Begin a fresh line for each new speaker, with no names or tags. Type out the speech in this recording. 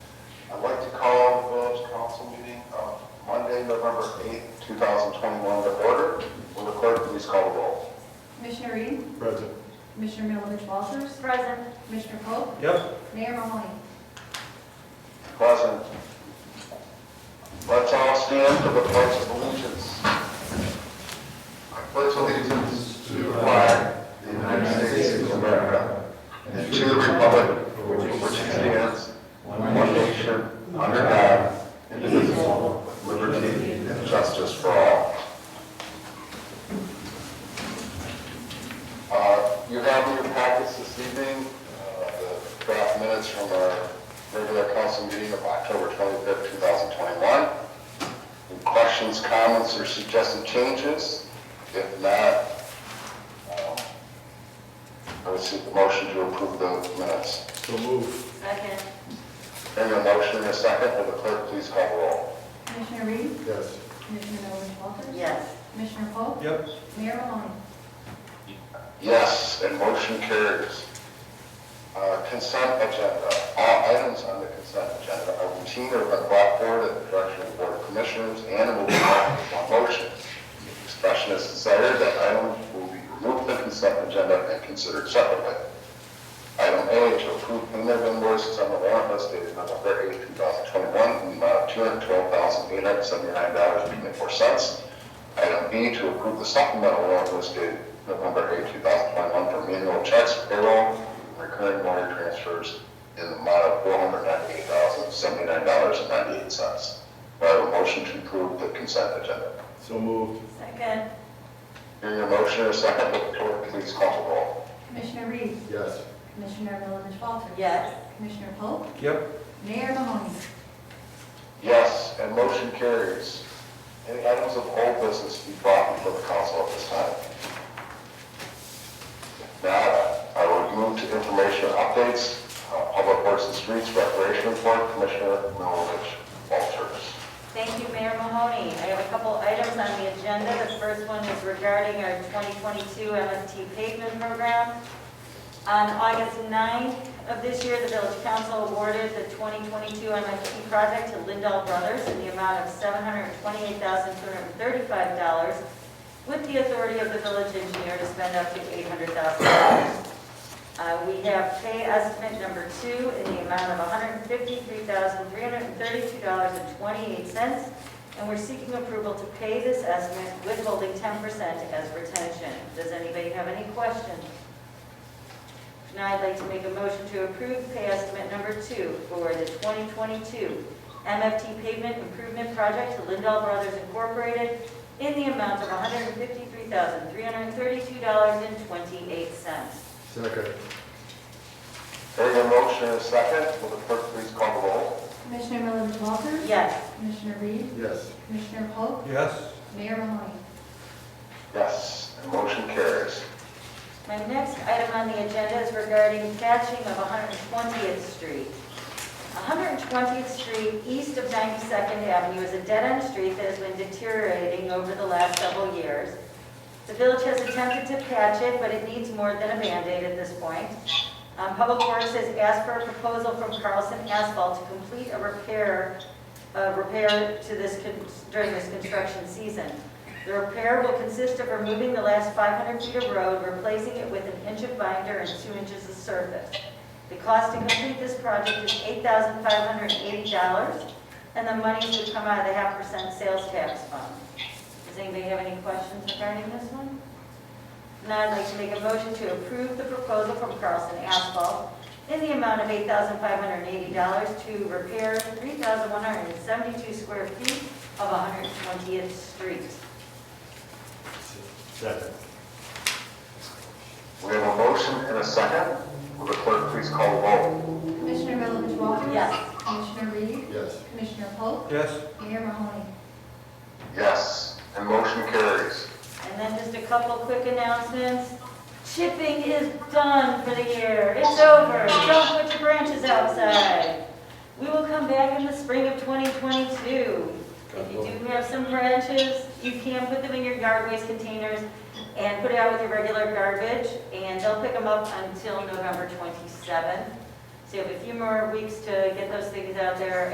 Monday, November 8th, 2021, to order. Will the clerk please call the roll?
Commissioner Reed?
Present.
Commissioner Milovich Walters?
Present.
Commissioner Pope?
Yep.
Mayor Mahoney?
Present. Let's all stand for the pledge of allegiance. I pledge allegiance to the flag of the United States of America and to the republic for which it stands, one nation, under God, indivisible, with liberty and justice for all. Uh, You have in your packets this evening, uh, the draft minutes from our regular council meeting of October 25th, 2021. Any questions, comments, or suggested changes? If not, um, I would seek the motion to approve the minutes.
So move.
Second.
Hearing a motion in a second, will the clerk please call the roll?
Commissioner Reed?
Yes.
Commissioner Milovich Walters?
Yes.
Commissioner Pope?
Yep.
Mayor Mahoney?
Yes, and motion carries. Uh, Consent agenda. All items on the consent agenda are routine or been brought forward at the direction of the Board of Commissioners and will be brought in one motion. If Expression is desired that items will be removed from the consent agenda and considered separately. Item A, to approve payment of invoices on the warrant list dated November 8, 2021, in the amount of $212,879.24. Item B, to approve the supplemental warrant list dated November 8, 2021, for manual checks, payroll, recurring wire transfers in the amount of $498,079.98. Do I have a motion to approve the consent agenda?
So moved.
Second.
Hearing a motion and a second, will the clerk please call the roll?
Commissioner Reed?
Yes.
Commissioner Milovich Walters?
Yes.
Commissioner Pope?
Yep.
Mayor Mahoney?
Yes, and motion carries. Any items of old business to be brought before the council at this time? If not, I will move to information updates, uh, Public Works and Streets Recreation Report, Commissioner Milovich Walters.
Thank you, Mayor Mahoney. I have a couple items on the agenda. The first one is regarding our 2022 MST pavement program. On August 9th of this year, the village council awarded the 2022 MST project to Lindell Brothers in the amount of $728,235 with the authority of the village engineer to spend up to $800,000. Uh, We have pay estimate number two in the amount of $153,332.28, and we're seeking approval to pay this estimate withholding 10% as retention. Does anybody have any questions? If not, I'd like to make a motion to approve pay estimate number two for the 2022 MFT Pavement Improvement Project to Lindell Brothers Incorporated in the amount of $153,332.28.
Second.
Hearing a motion and a second, will the clerk please call the roll?
Commissioner Milovich Walters?
Yes.
Commissioner Reed?
Yes.
Commissioner Pope?
Yes.
Mayor Mahoney?
Yes, and motion carries.
My next item on the agenda is regarding patching of 120th Street. 120th Street, east of 92nd Avenue, is a dead-end street that has been deteriorating over the last several years. The village has attempted to patch it, but it needs more than a Band-Aid at this point. Um, Public Works has asked for a proposal from Carlson Asphalt to complete a repair, a repair to this, con- during this construction season. The repair will consist of removing the last 500 feet of road, replacing it with an inch of binder and two inches of surface. The cost to complete this project is $8,580, and the money should come out of the half percent sales tax fund. Does anybody have any questions regarding this one? Now I'd like to make a motion to approve the proposal from Carlson Asphalt in the amount of $8,580 to repair 3,172 square feet of 120th Street.
Second.
We have a motion and a second, will the clerk please call the roll?
Commissioner Milovich Walters?
Yes.
Commissioner Reed?
Yes.
Commissioner Pope?
Yes.
Mayor Mahoney?
Yes, and motion carries.
And then just a couple quick announcements. Chipping is done for the year. It's over. Don't put your branches outside. We will come back in the spring of 2022. If you do have some branches, you can put them in your yard waste containers and put it out with your regular garbage, and they'll pick them up until November 27th. So you have a few more weeks to get those things out there